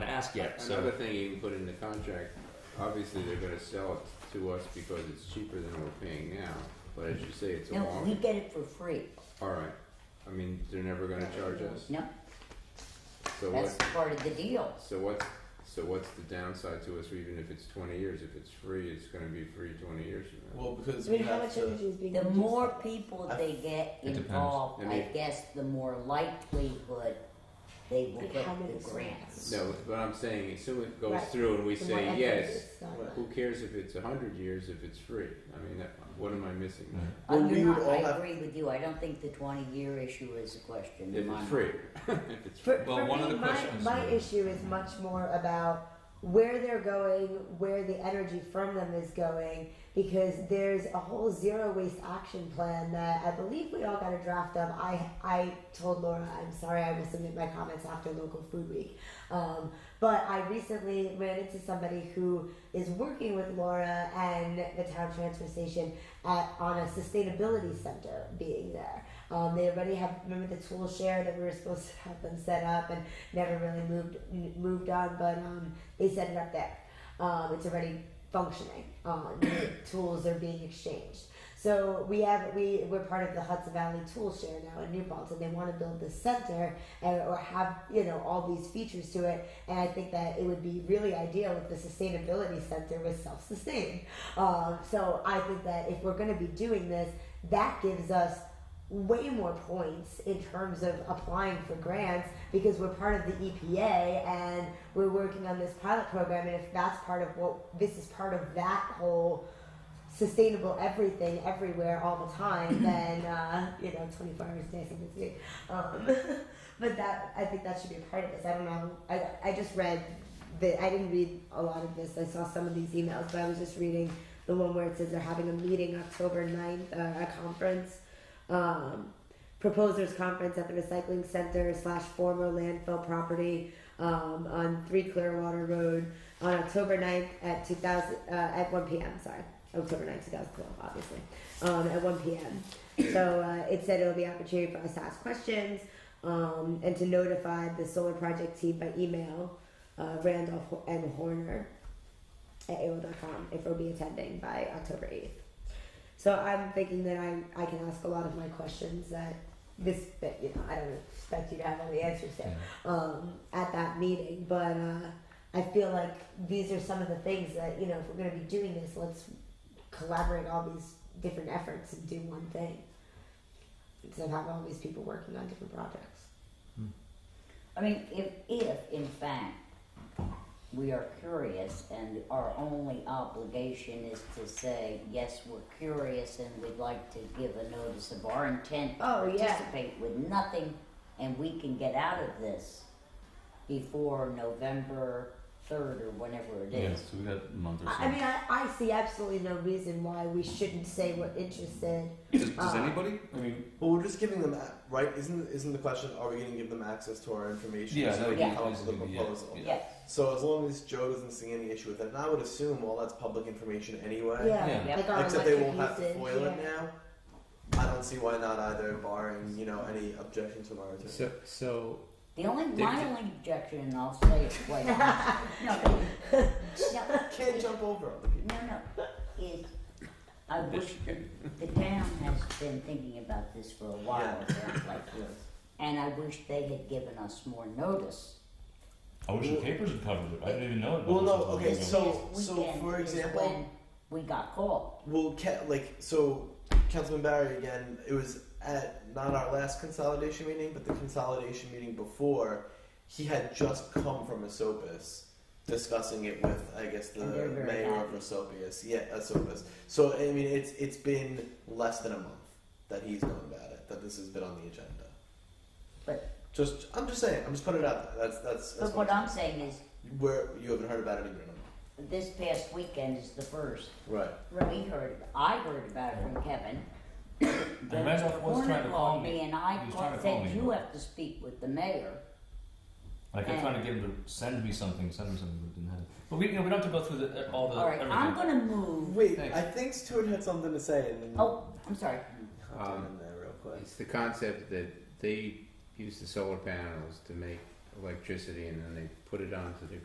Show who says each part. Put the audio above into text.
Speaker 1: ask yet, so.
Speaker 2: Another thing you can put in the contract, obviously they're gonna sell it to us because it's cheaper than we're paying now, but as you say, it's a
Speaker 3: No, we
Speaker 2: long,
Speaker 3: get it for free.
Speaker 2: alright, I mean, they're never gonna charge us,
Speaker 3: No,
Speaker 2: so
Speaker 3: that's
Speaker 2: what,
Speaker 3: part of the deal.
Speaker 2: so what's, so what's the downside to us, even if it's twenty years, if it's free, it's gonna be free twenty years from now?
Speaker 4: Well, because
Speaker 5: I mean,
Speaker 4: we
Speaker 5: how
Speaker 4: have
Speaker 5: much
Speaker 4: to-
Speaker 5: energy is being
Speaker 3: The
Speaker 5: used?
Speaker 3: more people they get
Speaker 1: It depends.
Speaker 3: involved,
Speaker 2: I
Speaker 3: I
Speaker 2: mean-
Speaker 3: guess the more likelihood they will
Speaker 5: Like
Speaker 3: get
Speaker 5: how many
Speaker 3: the
Speaker 5: songs?
Speaker 3: grants.
Speaker 2: No, but I'm saying, assume it goes
Speaker 5: Right.
Speaker 2: through and we
Speaker 5: The more
Speaker 2: say
Speaker 5: effort
Speaker 2: yes,
Speaker 5: it's done.
Speaker 4: Right.
Speaker 2: who cares if it's a hundred years if it's free, I mean, that, what am I missing there?
Speaker 3: Oh,
Speaker 4: Well,
Speaker 3: you're
Speaker 4: we
Speaker 3: not,
Speaker 4: would all
Speaker 3: I
Speaker 4: have-
Speaker 3: agree with you, I don't think the twenty year issue is a question in
Speaker 2: If it's
Speaker 3: my mind.
Speaker 2: free, if it's free.
Speaker 5: For,
Speaker 1: Well,
Speaker 5: for
Speaker 1: one
Speaker 5: me,
Speaker 1: of the
Speaker 5: my,
Speaker 1: questions-
Speaker 5: my issue is much more about where they're going, where the energy from them is going, because there's a whole zero waste action plan that I believe we all got a draft of. I I told Laura, I'm sorry, I will submit my comments after local food week. Um, but I recently ran into somebody who is working with Laura and the town transfer station at, on a sustainability center being there. Um, they already have remember the tool share that we were supposed to have them set up and never really moved n- moved on, but um, they set it up there. Um, it's already functioning. Um, the tools are being exchanged. So we have we we're part of the Hudson Valley Tool Share now in New Paltz, and they want to build this center and, or have you know all these features to it. And I think that it would be really ideal if the sustainability center was self-sustained. Um, so I think that if we're going to be doing this, that gives us way more points in terms of applying for grants because we're part of the EPA and we're working on this pilot program and if that's part of what this is part of that whole sustainable everything everywhere all the time then uh, you know 24 hours a day something's good um, but that i think that should be a part of this i don't know i, I just read the i didn't read a lot of this i saw some of these emails but i was just reading the one where it says they're having a meeting october 9th uh, a conference um, proposers conference at the recycling center slash former landfill property um, on 3 Clearwater Road on October 9th at 2000 uh, at 1 p.m. Sorry, October 9th, 2012, obviously um, at 1 p.m. So uh, it said it'll be an opportunity for us to ask questions um, and to notify the solar project team by email uh, Randolph and Horner at AOL.com if we'll be attending by October 8th. So I'm thinking that I, I can ask a lot of my questions that this, that, you know, I don't expect you to have all the answers there um, at that meeting, but uh, I feel like these are some of the things that, you know, if we're going to be doing this, let's collaborate all these different efforts and do one thing instead of have all these people working on different projects.
Speaker 3: I mean, if, if in fact we are curious and our only obligation is to say, yes, we're curious and we'd like to give a notice of our intent to
Speaker 5: Oh, yeah.
Speaker 3: participate with nothing and we can get out of this before November 3rd or whenever it
Speaker 1: Yeah,
Speaker 3: is.
Speaker 1: so we got a month or so.
Speaker 5: I, I mean, I, I see absolutely no reason why we shouldn't say we're interested.
Speaker 1: does, does
Speaker 5: uh,
Speaker 1: anybody? I mean,
Speaker 4: Well, we're just giving them a- right. Isn't isn't the question? Are we going to give them access to our information?
Speaker 1: Yeah, that
Speaker 4: so they
Speaker 1: would
Speaker 4: can
Speaker 1: be-
Speaker 4: come up with a
Speaker 1: basically, yeah,
Speaker 4: proposal.
Speaker 1: yeah.
Speaker 3: Yes.
Speaker 4: So as long as Joe doesn't see any issue with it, and I would assume all that's public information anyway.
Speaker 5: Yeah,
Speaker 1: Yeah.
Speaker 5: like our
Speaker 4: Except they
Speaker 5: electric
Speaker 4: won't have to
Speaker 5: usage,
Speaker 4: foil it
Speaker 5: yeah.
Speaker 4: now. I don't see why not either, barring you know any objections from our attorney.
Speaker 6: So, so
Speaker 3: The only, my
Speaker 6: Did-
Speaker 3: only objection, and I'll say it quite honestly, no, no,
Speaker 4: Can't jump over other people.
Speaker 3: No, no, is, I wish, the town has been thinking about this for a while, it sounds like, and I wish they had given us more notice.
Speaker 7: I wish the papers had covered it. I didn't even know it.
Speaker 4: Well, no, okay,
Speaker 3: This
Speaker 4: so-
Speaker 3: past
Speaker 4: so
Speaker 3: weekend
Speaker 4: for
Speaker 3: is
Speaker 4: example-
Speaker 3: when We got called,
Speaker 4: Well, ca- like so, Councilman Barry again. It was at not our last consolidation meeting, but the consolidation meeting before. He had just come from Esopus, discussing it with I guess the
Speaker 3: And they're very
Speaker 4: mayor
Speaker 3: happy.
Speaker 4: of Esopus. Yeah, Esopus. So I mean, it's it's been less than a month that he's known about it. That this has been on the agenda.
Speaker 3: but,
Speaker 4: Just I'm just saying. I'm just putting it out there. That's that's. that's
Speaker 3: but what I'm saying is,
Speaker 4: Where you haven't heard about it even in a
Speaker 3: this past weekend is the first,
Speaker 4: month. Right.
Speaker 3: we heard, I heard about it from Kevin. Then
Speaker 7: Randolph was
Speaker 3: Warner
Speaker 7: trying to call
Speaker 3: called
Speaker 7: me.
Speaker 3: and I
Speaker 7: He was
Speaker 3: called-
Speaker 7: trying to call me.
Speaker 3: said, you have to speak with the mayor,
Speaker 7: Like I'm trying to get him to send me something, send me something, but didn't happen. But we, you know, we don't have to go through the, uh, all the.
Speaker 3: alright,
Speaker 7: everything.
Speaker 3: I'm gonna move,
Speaker 4: Wait,
Speaker 1: Thanks.
Speaker 4: I think Stuart had something to say. And
Speaker 3: oh, I'm sorry,
Speaker 4: Hop
Speaker 2: Um,
Speaker 4: in there real quick.
Speaker 2: It's the concept that they use the solar panels to make electricity and then they put it onto the